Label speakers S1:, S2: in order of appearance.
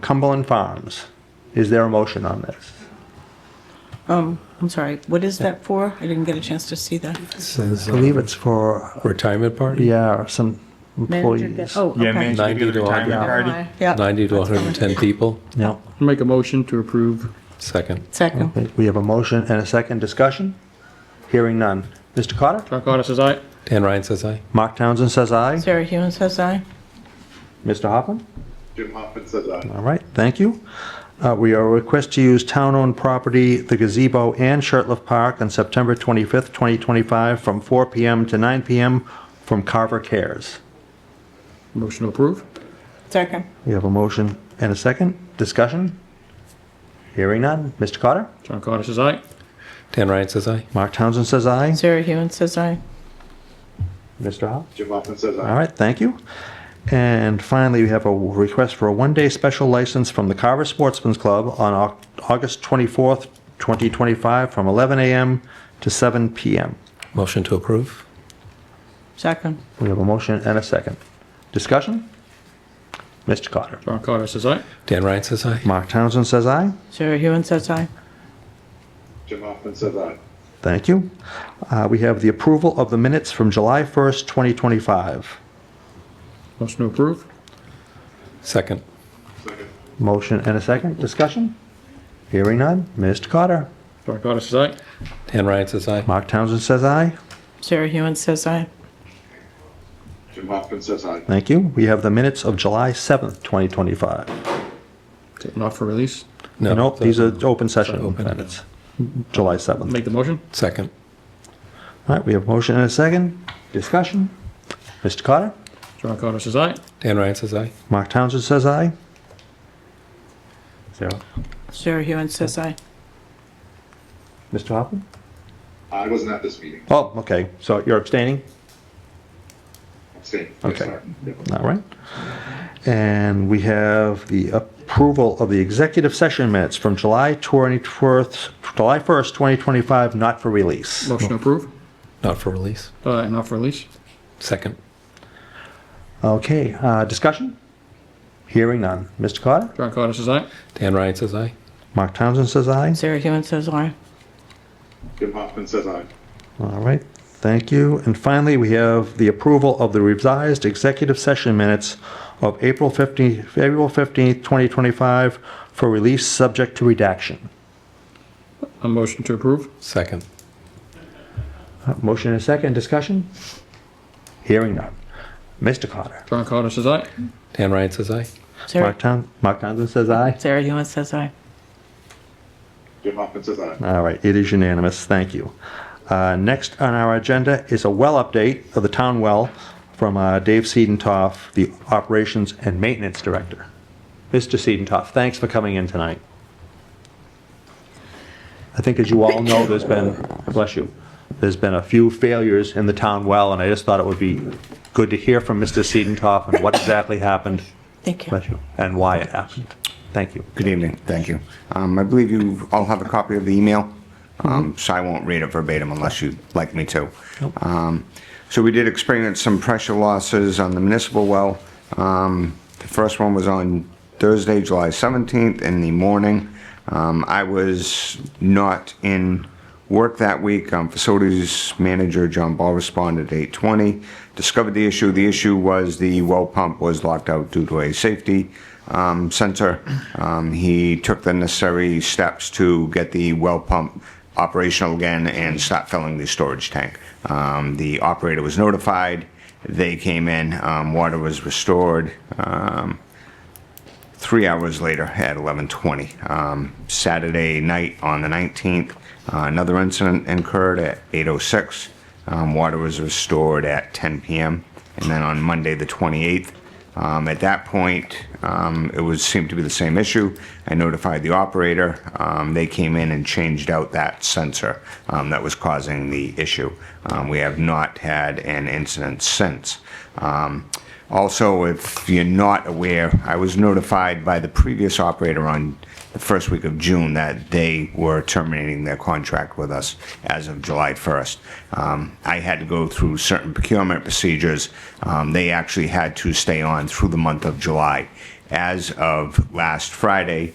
S1: Cumberland Farms. Is there a motion on this?
S2: Um, I'm sorry, what is that for? I didn't get a chance to see that.
S3: Says
S1: I
S3: uh,
S1: believe it's for,
S3: retirement party?
S1: yeah, some
S2: Manager
S1: employees.
S2: get- Oh,
S4: Yeah,
S2: okay.
S4: manage to get
S3: 90
S4: a
S3: to
S4: retirement
S3: 100.
S4: party.
S2: Yeah,
S3: 90 to 110 people?
S1: Yeah.
S5: Make a motion to approve.
S3: Second.
S2: second.
S1: Okay, We have a motion and a second discussion. Hearing none. Mr. Carter?
S5: Chuck Carter says aye.
S3: Dan Ryan says aye.
S1: Mark Townsend says aye.
S2: Sarah Hewen says aye.
S1: Mr. Hoffman?
S6: Jim Hoffman says aye.
S1: All right, thank you. Uh, We are request to use town-owned property, the gazebo and Shirtliff Park on September 25th, 2025, from 4 PM to 9 PM from Carver Cares.
S5: Motion to approve.
S2: Second.
S1: We have a motion and a second. Discussion? Hearing none. Mr. Carter?
S5: Chuck Carter says aye.
S3: Dan Ryan says aye.
S1: Mark Townsend says aye.
S2: Sarah Hewen says aye.
S1: Mr. Hoff?
S6: Jim Hoffman says aye.
S1: All right, thank you. And finally, we have a request for a one-day special license from the Carver Sportsman's Club on Au- August 24th, 2025, from 11 a.m. to 7 p.m.
S3: Motion to approve?
S2: Second.
S1: We have a motion and a second. Discussion? Mr. Carter.
S5: Chuck Carter says aye.
S3: Dan Ryan says aye.
S1: Mark Townsend says aye.
S2: Sarah Hewen says aye.
S6: Jim Hoffman says aye.
S1: Thank you. Uh, We have the approval of the minutes from July 1st, 2025.
S5: Motion to approve.
S3: Second.
S6: Second.
S1: Motion and a second. Discussion? Hearing none. Mr. Carter.
S5: Chuck Carter says aye.
S3: Dan Ryan says aye.
S1: Mark Townsend says aye.
S2: Sarah Hewen says aye.
S6: Jim Hoffman says aye.
S1: Thank you. We have the minutes of July 7th, 2025.
S5: Taken off for release.
S3: No,
S1: Nope, these are open session
S3: Open.
S1: minutes, July 7th.
S5: Make the motion.
S3: Second.
S1: All right, we have motion and a second. Discussion? Mr. Carter?
S5: Chuck Carter says aye.
S3: Dan Ryan says aye.
S1: Mark Townsend says aye. Sarah?
S2: Sarah Hewen says aye.
S1: Mr. Hoffman?
S6: I wasn't at this meeting.
S1: Oh, okay, so you're abstaining?
S6: Abstain.
S1: Okay. All right. And we have the approval of the executive session minutes from July 24th, July 1st, 2025, not for release.
S5: Motion to approve.
S3: Not for release.
S5: Uh, not for release.
S3: Second.
S1: Okay, uh, discussion? Hearing none. Mr. Carter?
S5: Chuck Carter says aye.
S3: Dan Ryan says aye.
S1: Mark Townsend says aye.
S2: Sarah Hewen says aye.
S6: Jim Hoffman says aye.
S1: All right, thank you. And finally, we have the approval of the revised executive session minutes of April 15th, April 15th, 2025 for release subject to redaction.
S5: A motion to approve.
S3: Second.
S1: Uh, Motion and a second, discussion? Hearing none. Mr. Carter?
S5: Chuck Carter says aye.
S3: Dan Ryan says aye.
S2: Sarah
S1: Mark Town, Mark Townsend says aye.
S2: Sarah Hewen says aye.
S6: Jim Hoffman says aye.
S1: All right, it is unanimous, thank you. Uh, Next on our agenda is a well update of the town well from uh, Dave Seidenthoff, the Operations and Maintenance Director. Mr. Seidenthoff, thanks for coming in tonight. I think as you all know, there's been, bless you, there's been a few failures in the town well, and I just thought it would be good to hear from Mr. Seidenthoff and what exactly happened,
S2: Thank you.
S1: bless you, and why it happened. Thank you.
S7: Good evening, thank you. Um, I believe you all have a copy of the email, um, so I won't read it verbatim unless you'd like me to. Um, So we did experience some pressure losses on the municipal well. Um, The first one was on Thursday, July 17th in the morning. Um, I was not in work that week. Um, Facilities manager John Ball responded at 8:20, discovered the issue. The issue was the well pump was locked out due to a safety um, sensor. Um, He took the necessary steps to get the well pump operational again and start filling the storage tank. Um, The operator was notified. They came in. um, Water was restored. um, three hours later at 11:20 um, Saturday night on the 19th. Uh, another incident incurred at 8:06. Um, water was restored at 10 p.m. and then on Monday the 28th. Um, at that point, um, it was seemed to be the same issue. I notified the operator. Um, they came in and changed out that sensor um, that was causing the issue. Um, we have not had an incident since. Um, also, if you're not aware, I was notified by the previous operator on the first week of June that they were terminating their contract with us as of July 1st. Um, I had to go through certain procurement procedures. Um, They actually had to stay on through the month of July as of last Friday,